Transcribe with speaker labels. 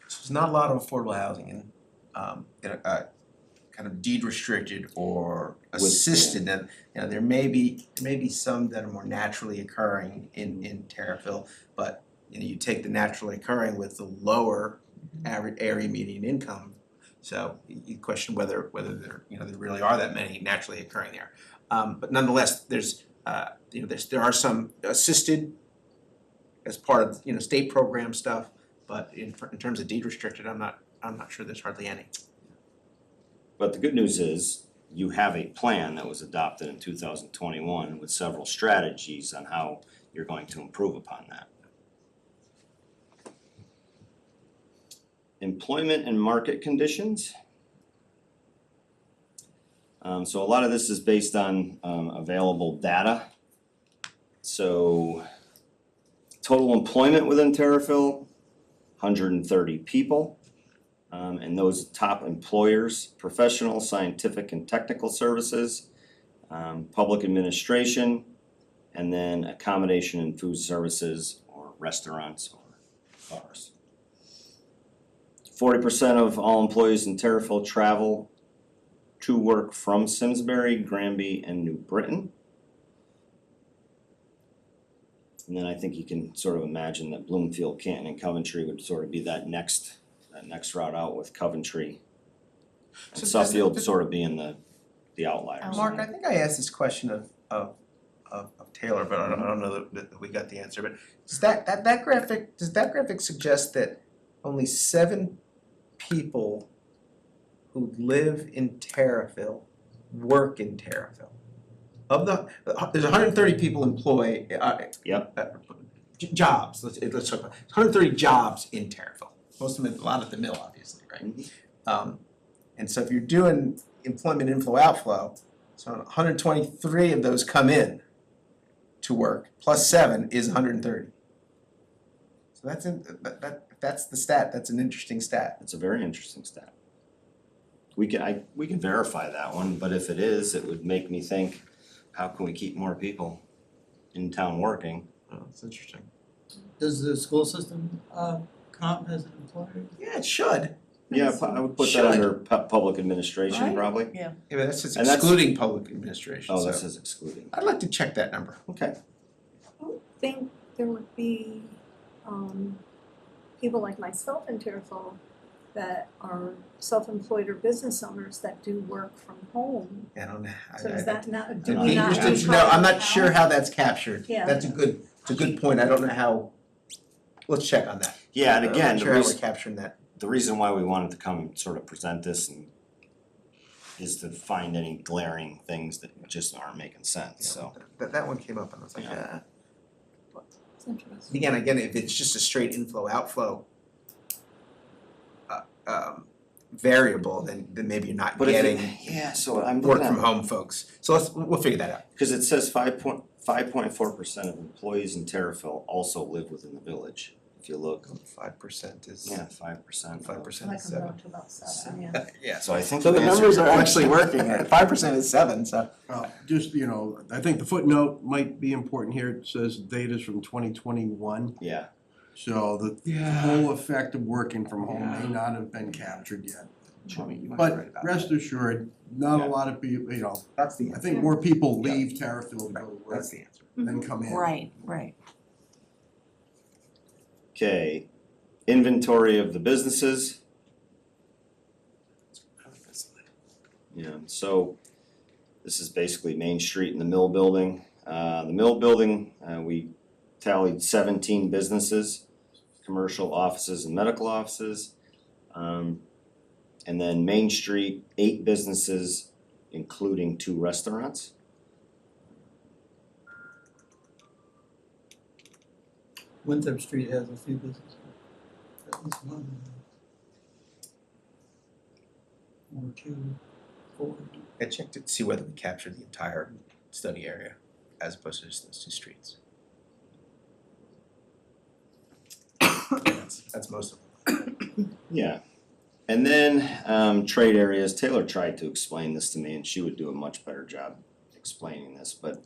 Speaker 1: there's not a lot of affordable housing in um in a uh kind of deed restricted or assisted that, you know, there may be, there may be some that are more naturally occurring in in Terriffill, but you know, you take the naturally occurring with the lower average area median income. So you you question whether whether there, you know, there really are that many naturally occurring there. Um but nonetheless, there's uh, you know, there's there are some assisted as part of, you know, state program stuff, but in in terms of deed restricted, I'm not, I'm not sure there's hardly any.
Speaker 2: But the good news is, you have a plan that was adopted in two thousand twenty-one with several strategies on how you're going to improve upon that. Employment and market conditions. Um, so a lot of this is based on, um, available data. So, total employment within Terrafil, hundred and thirty people. Um, and those top employers, professional, scientific and technical services, um, public administration, and then accommodation and food services or restaurants or bars. Forty percent of all employees in Terriffill travel to work from Simsbury, Granby and New Britain. And then I think you can sort of imagine that Bloomfield, Canton and Coventry would sort of be that next that next route out with Coventry.
Speaker 1: So
Speaker 2: And
Speaker 1: does
Speaker 2: Suffield
Speaker 1: the-
Speaker 2: sort of being the, the outliers.
Speaker 3: Oh.
Speaker 1: Mark, I think I asked this question of of of of Taylor, but I don't I don't know that- that we got the answer, but does that that that graphic, does that graphic suggest that only seven people who live in Terriffill work in Terriffill? Of the, there's hundred and thirty people employed, uh.
Speaker 2: Yep.
Speaker 1: uh, j- Jobs, let's let's talk about, hundred and thirty jobs in Terriffill, most of them, a lot at the mill, obviously, right?
Speaker 2: Mhm.
Speaker 1: Um, and so if you're doing employment inflow outflow, so 123 of those come in to work, plus seven is 130. So that's in, that, that that's the stat. That's an interesting stat.
Speaker 2: It's a very interesting stat. We can, I, we can verify that one, but if it is, it would make me think, how can we keep more people in town working?
Speaker 1: Oh, that's interesting.
Speaker 4: Does the school system uh comp as an employer?
Speaker 1: Yeah, it should.
Speaker 2: Yeah, pu- I would put that
Speaker 1: Should.
Speaker 2: under pu- public administration
Speaker 3: Right?
Speaker 2: probably.
Speaker 1: Yeah, but that's just
Speaker 2: And that's-
Speaker 1: excluding public administration.
Speaker 2: Oh,
Speaker 1: so
Speaker 2: this is excluding.
Speaker 1: I'd like to check that number.
Speaker 2: Okay,
Speaker 3: think there would be um people like myself in Terriffill that are self-employed or business owners that do work from home.
Speaker 1: I don't know. I-
Speaker 3: So is
Speaker 1: I-
Speaker 3: that not,
Speaker 1: I'd
Speaker 3: do
Speaker 1: be
Speaker 3: we not?
Speaker 1: interested to
Speaker 3: try
Speaker 1: know. I'm
Speaker 3: that
Speaker 1: not sure
Speaker 3: out?
Speaker 1: how that's captured.
Speaker 3: Yeah.
Speaker 1: That's a good. It's a good point. I don't know how. Let's check on that.
Speaker 2: yeah, and
Speaker 1: I'm not
Speaker 2: again, the
Speaker 1: sure how we're
Speaker 2: reason,
Speaker 1: capturing that.
Speaker 2: the reason why we wanted to come and sort of present this and is to find any glaring things that just aren't making sense, so.
Speaker 1: That that one came up and I was like,
Speaker 2: Yeah.
Speaker 1: ah.
Speaker 3: It's interesting.
Speaker 1: Again, again, if it's just a straight inflow outflow uh um variable, then then maybe you're not
Speaker 2: But if it-
Speaker 1: getting
Speaker 2: yeah, so I'm
Speaker 1: work
Speaker 2: looking at-
Speaker 1: from home folks. So let's, we'll figure that out.
Speaker 2: Cause it says five point, five point four percent of employees in Terriffill also live within the village, if you look,
Speaker 1: Five percent is,
Speaker 2: yeah, five percent.
Speaker 1: five
Speaker 3: That
Speaker 1: percent is
Speaker 3: comes
Speaker 1: seven.
Speaker 3: out to about seven, yeah.
Speaker 1: Yeah.
Speaker 2: So I think
Speaker 1: So
Speaker 2: it
Speaker 1: the
Speaker 2: answers
Speaker 1: numbers
Speaker 2: your
Speaker 1: are actually
Speaker 2: question.
Speaker 1: working, five percent is seven, so.
Speaker 5: Well, Uh, just, you know, I think the footnote might be important here, it says data's from twenty twenty-one,
Speaker 2: Yeah,
Speaker 5: so the whole effect of working from home may not have been captured yet. But rest assured, not
Speaker 2: Yeah.
Speaker 5: a lot of people, you know,
Speaker 1: That's the
Speaker 5: I
Speaker 1: answer,
Speaker 5: think more people leave Terrifield to go to work
Speaker 1: that's the answer.
Speaker 5: than come in.
Speaker 6: Right, right.
Speaker 2: okay, inventory of the businesses, yeah, so this is basically Main Street and the Mill Building. Uh, the Mill Building, uh, we tallied seventeen businesses, commercial offices and medical offices. Um, and then Main Street, eight businesses, including two restaurants.
Speaker 4: Winthrop Street has a few businesses. At least one. Or two, four.
Speaker 1: I checked to see whether we captured the entire study area as opposed to just those two streets. That's that's most of them.
Speaker 2: Yeah. And then um trade areas, Taylor tried to explain this to me and she would do a much better job explaining this, but